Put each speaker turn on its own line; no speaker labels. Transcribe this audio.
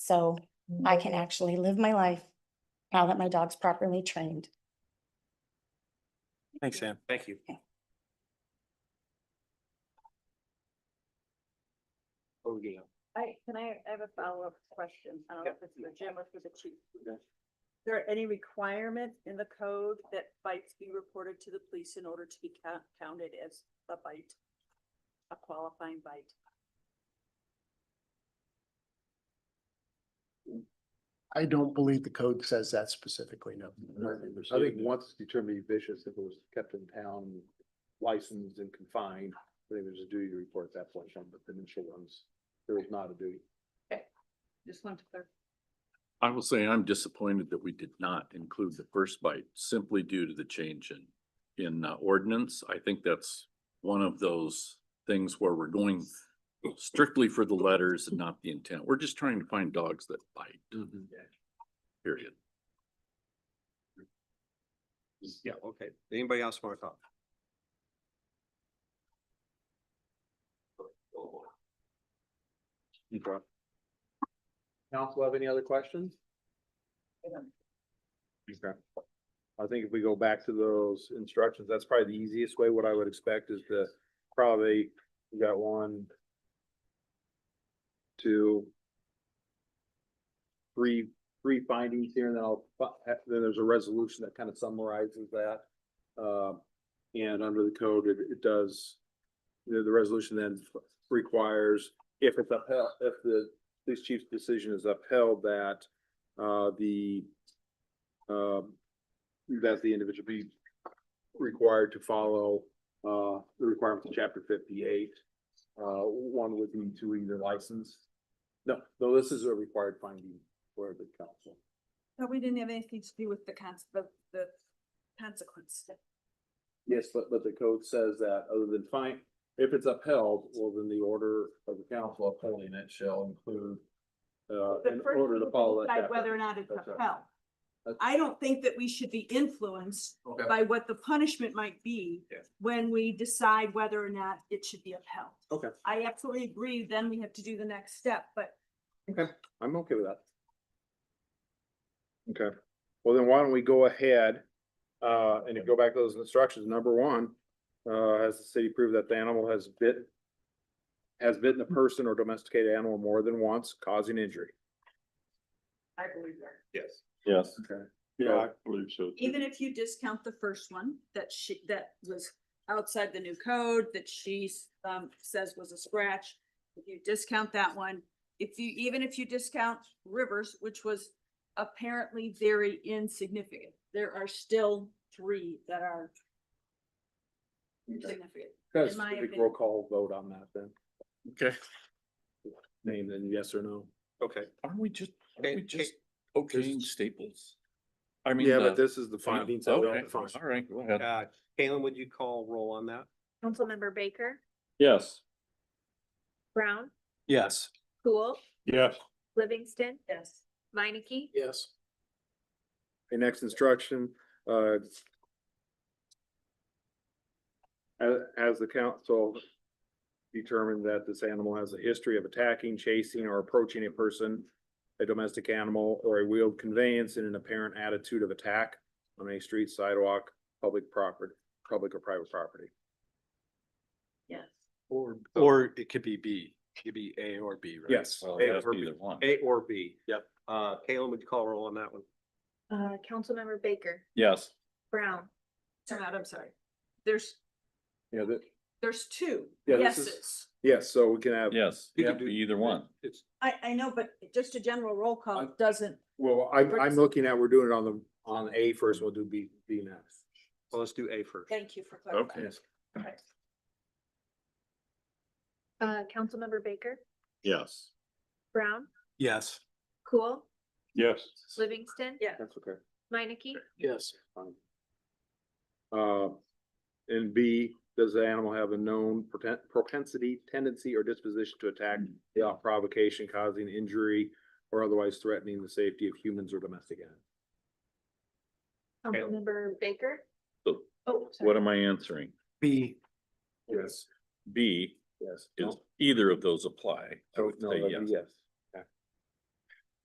So I can actually live my life now that my dog's properly trained.
Thanks, Sam.
Thank you.
Okay.
Oh, yeah.
I, can I, I have a follow-up question. I don't know if it's for Jim or for the chief.
Okay.
Is there any requirement in the code that bites be reported to the police in order to be count- counted as a bite? A qualifying bite?
I don't believe the code says that specifically, no.
I think once it's determined to be vicious, if it was kept in town, licensed and confined, I think there's a duty to report at that point, in time, but the initial ones, there is not a duty.
Just want to clarify.
I will say I'm disappointed that we did not include the first bite simply due to the change in, in uh, ordinance. I think that's one of those things where we're going strictly for the letters and not the intent. We're just trying to find dogs that bite, period.
Yeah, okay. Anybody else want to talk? Okay.
Council have any other questions? Okay. I think if we go back to those instructions, that's probably the easiest way. What I would expect is to probably, you got one, two, three, three findings here, and then I'll, fi- then there's a resolution that kind of summarizes that. Uh, and under the code, it, it does, the, the resolution then requires, if it's upheld, if the police chief's decision is upheld that, uh, the, um, that the individual be required to follow, uh, the requirements of chapter fifty-eight. Uh, one would be to either license. No, no, this is a required finding for the council.
No, we didn't have anything to do with the cons, the, the consequence.
Yes, but, but the code says that other than fine, if it's upheld, well, then the order of the council upholding it shall include, uh,
The
in
first
order
thing
to follow that.
decide
chapter.
Whether or not it's
That's right.
upheld.
That's-
I don't think that we should be influenced
Okay.
by what the punishment might be
Yeah.
when we decide whether or not it should be upheld.
Okay.
I absolutely agree, then we have to do the next step, but
I'm okay with that. Okay, well then why don't we go ahead, uh, and if you go back to those instructions, number one, uh, has the city proved that the animal has bit, has bitten a person or domesticated animal more than once, causing injury?
I believe that.
Yes.
Yes.
Okay.
Yeah, I believe so.
Even if you discount the first one that she, that was outside the new code that she um says was a scratch. If you discount that one, if you, even if you discount Rivers, which was apparently very insignificant, there are still three that are significant.
Guys,
In my
big
opinion.
roll call vote on that then,
Okay,
name then yes or no?
Okay.
aren't we just, aren't we
Okay,
just okaying staples? I mean.
Yeah,
uh,
but this is the
I mean,
findings. that we
okay,
don't define.
All right, go ahead.
Uh, Kalen, would you call roll on that?
Councilmember Baker,
Yes.
Brown,
Yes.
Cool,
Yes.
Livingston,
Yes.
Minneke,
Yes. The next instruction, uh. As, as the council determined that this animal has a history of attacking, chasing, or approaching a person, a domestic animal, or a wheeled conveyance in an apparent attitude of attack on a street sidewalk, public property, public or private property.
Yes.
Or, or it could be B, it could be A or B, right?
Yes.
Well,
A
that's
or B.
either one.
A or B?
Yep.
Uh, Kalen, would you call roll on that one?
uh, Councilmember Baker,
Yes.
Brown,
Turn out, I'm sorry. There's,
Yeah, that,
there's two
Yeah, this is-
yeses.
yes, so we can have,
Yes,
You
it
can do-
could be either one.
It's,
I, I know, but just a general roll call doesn't.
well, I'm, I'm looking at, we're doing it on the, on A first, we'll do B, B next.
well, let's do A first.
Thank you for clarifying.
uh, Councilmember Baker,
Yes.
Brown,
Yes.
Cool,
Yes.
Livingston,
Yeah.
That's okay.
Minneke,
Yes.
Fine. Uh, and B, does the animal have a known proten- propensity, tendency, or disposition to attack without provocation, causing injury, or otherwise threatening the safety of humans or domestic animals?
Councilmember Baker,
Oh, sorry.
What am I answering?
B.
Yes.
B,
Yes.
is either of those apply? I
So,
would
no,
say
that'd
yes.
be yes.